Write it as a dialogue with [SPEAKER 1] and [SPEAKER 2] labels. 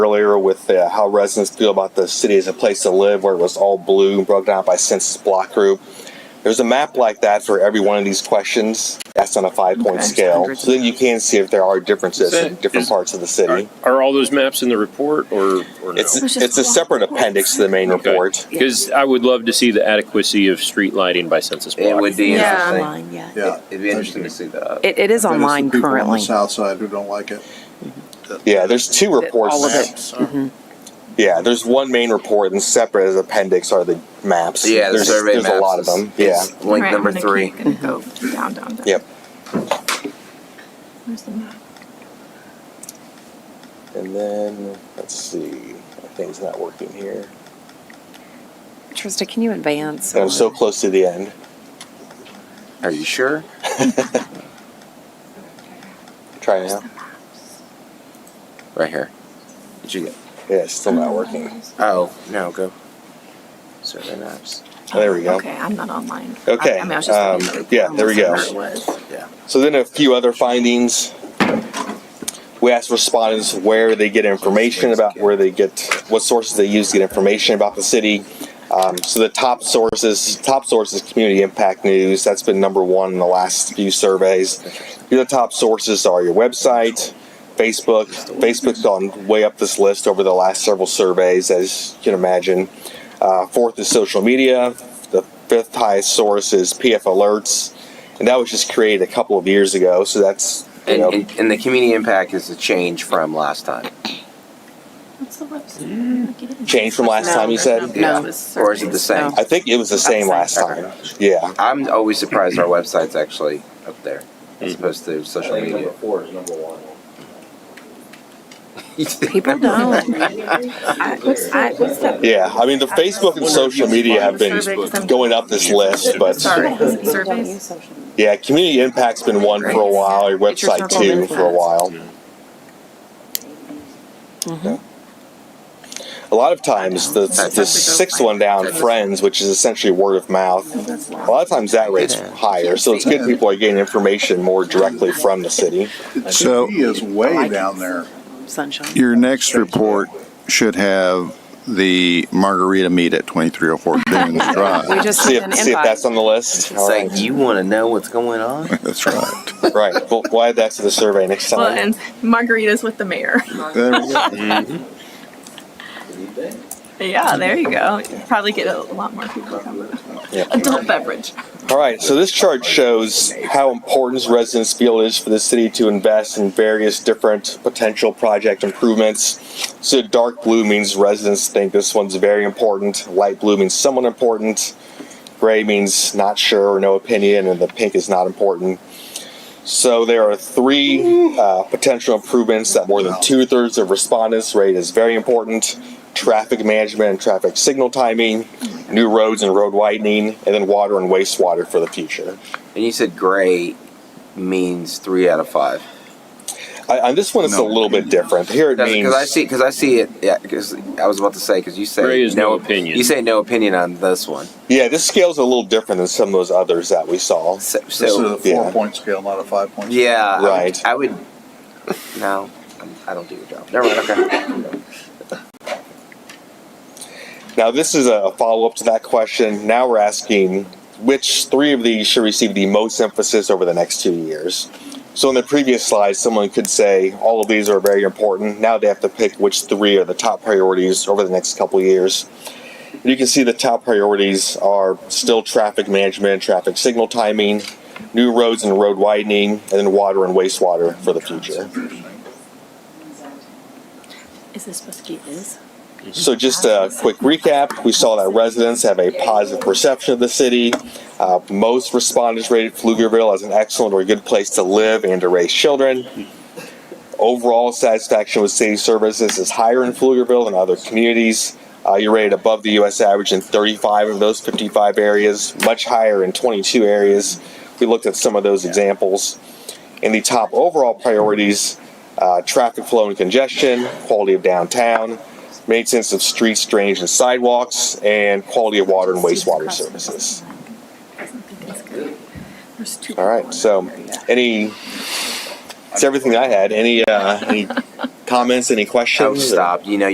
[SPEAKER 1] earlier with uh, how residents feel about the city as a place to live, where it was all blue and broken down by census block group. There's a map like that for every one of these questions. That's on a five point
[SPEAKER 2] Okay.
[SPEAKER 1] scale. So then you can see if there are differences
[SPEAKER 3] Is
[SPEAKER 1] in
[SPEAKER 3] that-
[SPEAKER 1] different
[SPEAKER 3] is-
[SPEAKER 1] parts of the city.
[SPEAKER 3] Are, are all those maps in the report or, or no?
[SPEAKER 1] It's,
[SPEAKER 2] was just
[SPEAKER 1] it's a
[SPEAKER 2] block
[SPEAKER 1] separate
[SPEAKER 2] reports.
[SPEAKER 1] appendix to the main report.
[SPEAKER 3] Because I would love to see the adequacy of street lighting by census block.
[SPEAKER 4] It would be
[SPEAKER 2] Yeah.
[SPEAKER 4] interesting.
[SPEAKER 5] Online, yeah.
[SPEAKER 6] Yeah.
[SPEAKER 4] It'd be interesting to see that.
[SPEAKER 5] It, it is
[SPEAKER 6] Then it's the
[SPEAKER 5] online
[SPEAKER 6] people on the
[SPEAKER 5] currently.
[SPEAKER 6] South side who don't like it.
[SPEAKER 1] Yeah, there's two reports.
[SPEAKER 5] All of it.
[SPEAKER 6] Maps.
[SPEAKER 1] Yeah, there's one main report and separate as appendix are the maps.
[SPEAKER 4] Yeah, the
[SPEAKER 1] there's,
[SPEAKER 4] survey
[SPEAKER 1] there's
[SPEAKER 4] maps
[SPEAKER 1] a lot of
[SPEAKER 4] is-
[SPEAKER 1] them. Yeah.
[SPEAKER 4] is Link
[SPEAKER 2] Alright,
[SPEAKER 4] number
[SPEAKER 2] I'm gonna
[SPEAKER 4] three.
[SPEAKER 2] keep- Gonna go down, down, down.
[SPEAKER 1] Mm-hmm. Yep.
[SPEAKER 2] Where's the map?
[SPEAKER 1] And then let's see. My thing's not working here.
[SPEAKER 5] Trista, can you advance?
[SPEAKER 1] I'm so close to the end.
[SPEAKER 4] Are you sure?
[SPEAKER 1] Try now.
[SPEAKER 4] Right here. Did you get?
[SPEAKER 1] Yeah, it's still not working.
[SPEAKER 4] Oh no, go. Survey maps.
[SPEAKER 1] Oh, There we go.
[SPEAKER 2] Okay, I'm not online.
[SPEAKER 1] Okay,
[SPEAKER 2] I, I mean, I was just looking
[SPEAKER 1] um,
[SPEAKER 2] at the
[SPEAKER 1] yeah,
[SPEAKER 2] report.
[SPEAKER 1] there we go.
[SPEAKER 2] Where it was.
[SPEAKER 4] Yeah.
[SPEAKER 1] So then a few other findings. We asked respondents where they get information about where they get, what sources they use to get information about the city. Um, so the top sources, top sources, community impact news. That's been number one in the last few surveys. The other top sources are your website, Facebook. Facebook's gone way up this list over the last several surveys, as you can imagine. Uh, fourth is social media. The fifth highest source is PF alerts, and that was just created a couple of years ago. So that's you
[SPEAKER 4] And,
[SPEAKER 1] know,
[SPEAKER 4] and, and the community impact is a change from last time,
[SPEAKER 2] What's the website?
[SPEAKER 1] Changed from last
[SPEAKER 5] No,
[SPEAKER 1] time you said.
[SPEAKER 4] no.
[SPEAKER 2] It was
[SPEAKER 4] or is it the
[SPEAKER 2] surveys.
[SPEAKER 4] same?
[SPEAKER 1] I think it was the same last time. Yeah,
[SPEAKER 4] I'm always surprised our website's actually up there as
[SPEAKER 1] Mm-hmm.
[SPEAKER 4] opposed to social media.
[SPEAKER 7] four is number one.
[SPEAKER 5] People don't.
[SPEAKER 2] I- What's that, what's that?
[SPEAKER 1] yeah. I mean, the Facebook and social media have been going up this list, but
[SPEAKER 2] Sorry, is it surveys?
[SPEAKER 1] yeah, community impact's been one for a while. Your website too for a while.
[SPEAKER 5] Mm-hmm.
[SPEAKER 1] A lot of times, the, the sixth one down, friends, which is essentially word of mouth.
[SPEAKER 5] Oh,
[SPEAKER 1] A lot of times that rate's higher, so it's good people are getting information more directly from the city.
[SPEAKER 8] So-
[SPEAKER 6] He is way down there.
[SPEAKER 5] Sunshine.
[SPEAKER 8] Your next report should have the margarita meet at 2304 Dunes
[SPEAKER 5] We
[SPEAKER 8] Drive.
[SPEAKER 5] just
[SPEAKER 1] See
[SPEAKER 5] sent an
[SPEAKER 1] if, see if that's
[SPEAKER 5] invite.
[SPEAKER 1] on the list.
[SPEAKER 4] It's
[SPEAKER 1] All
[SPEAKER 4] like
[SPEAKER 1] right,
[SPEAKER 4] you want to know what's going on.
[SPEAKER 8] That's right.
[SPEAKER 1] right. We'll, we'll add that to the survey next
[SPEAKER 2] Well,
[SPEAKER 1] time.
[SPEAKER 2] and margaritas with the mayor.
[SPEAKER 8] There we go.
[SPEAKER 2] Yeah, there you go. You Probably get a lot more people coming.
[SPEAKER 1] Yeah.
[SPEAKER 2] Adult beverage.
[SPEAKER 1] All right, so this chart shows how important residents feel it is for the city to invest in various different potential project improvements. So dark blue means residents think this one's very important, light blue means somewhat important, gray means not sure or no opinion, and the pink is not important. So there are three uh, potential improvements that more than two thirds of respondents rate as very important traffic management and traffic signal timing, new roads and road widening, and then water and wastewater for the future.
[SPEAKER 4] And you said gray means three out of five.
[SPEAKER 1] I, on this one, it's a
[SPEAKER 8] No.
[SPEAKER 1] little bit different. Here it means
[SPEAKER 4] Because I see, because I see it. Yeah, because I was about to say, because you say
[SPEAKER 3] Gray is no opinion.
[SPEAKER 4] You say no opinion on this one.
[SPEAKER 1] yeah, this scale's a little different than some of those others that we saw.
[SPEAKER 4] So,
[SPEAKER 6] This is
[SPEAKER 4] so
[SPEAKER 6] a four point scale, not a five point. scale.
[SPEAKER 4] yeah, I would-
[SPEAKER 1] Right.
[SPEAKER 4] I would. no, I'm- I don't do your job. Never mind. Okay.
[SPEAKER 1] Now, this is a follow up to that question. Now we're asking which three of these should receive the most emphasis over the next two years. So, in the previous slide, someone could say all of these are very important. Now they have to pick which three are the top priorities over the next couple of years. And you can see the top priorities are still traffic management, traffic signal timing, new roads and road widening, and then water and wastewater for the future.
[SPEAKER 2] Is this supposed to be is?
[SPEAKER 1] So just a quick recap, we saw that residents have a positive perception of the city. Uh, most respondents rated Pflugerville as an excellent or good place to live and to raise children. Overall satisfaction with city services is higher in Pflugerville than other communities. Uh, you're rated above the US average in 35 of those 55 areas, much higher in 22 areas. We looked at some of those examples. In the top overall priorities, uh, traffic flow and congestion, quality of downtown, maintenance of streets, drainage, and sidewalks, and quality of water and wastewater services.
[SPEAKER 2] There's two.
[SPEAKER 1] All right, so any, it's everything I had. Any, uh, any
[SPEAKER 9] comments, any questions?
[SPEAKER 1] I'll stop. You know,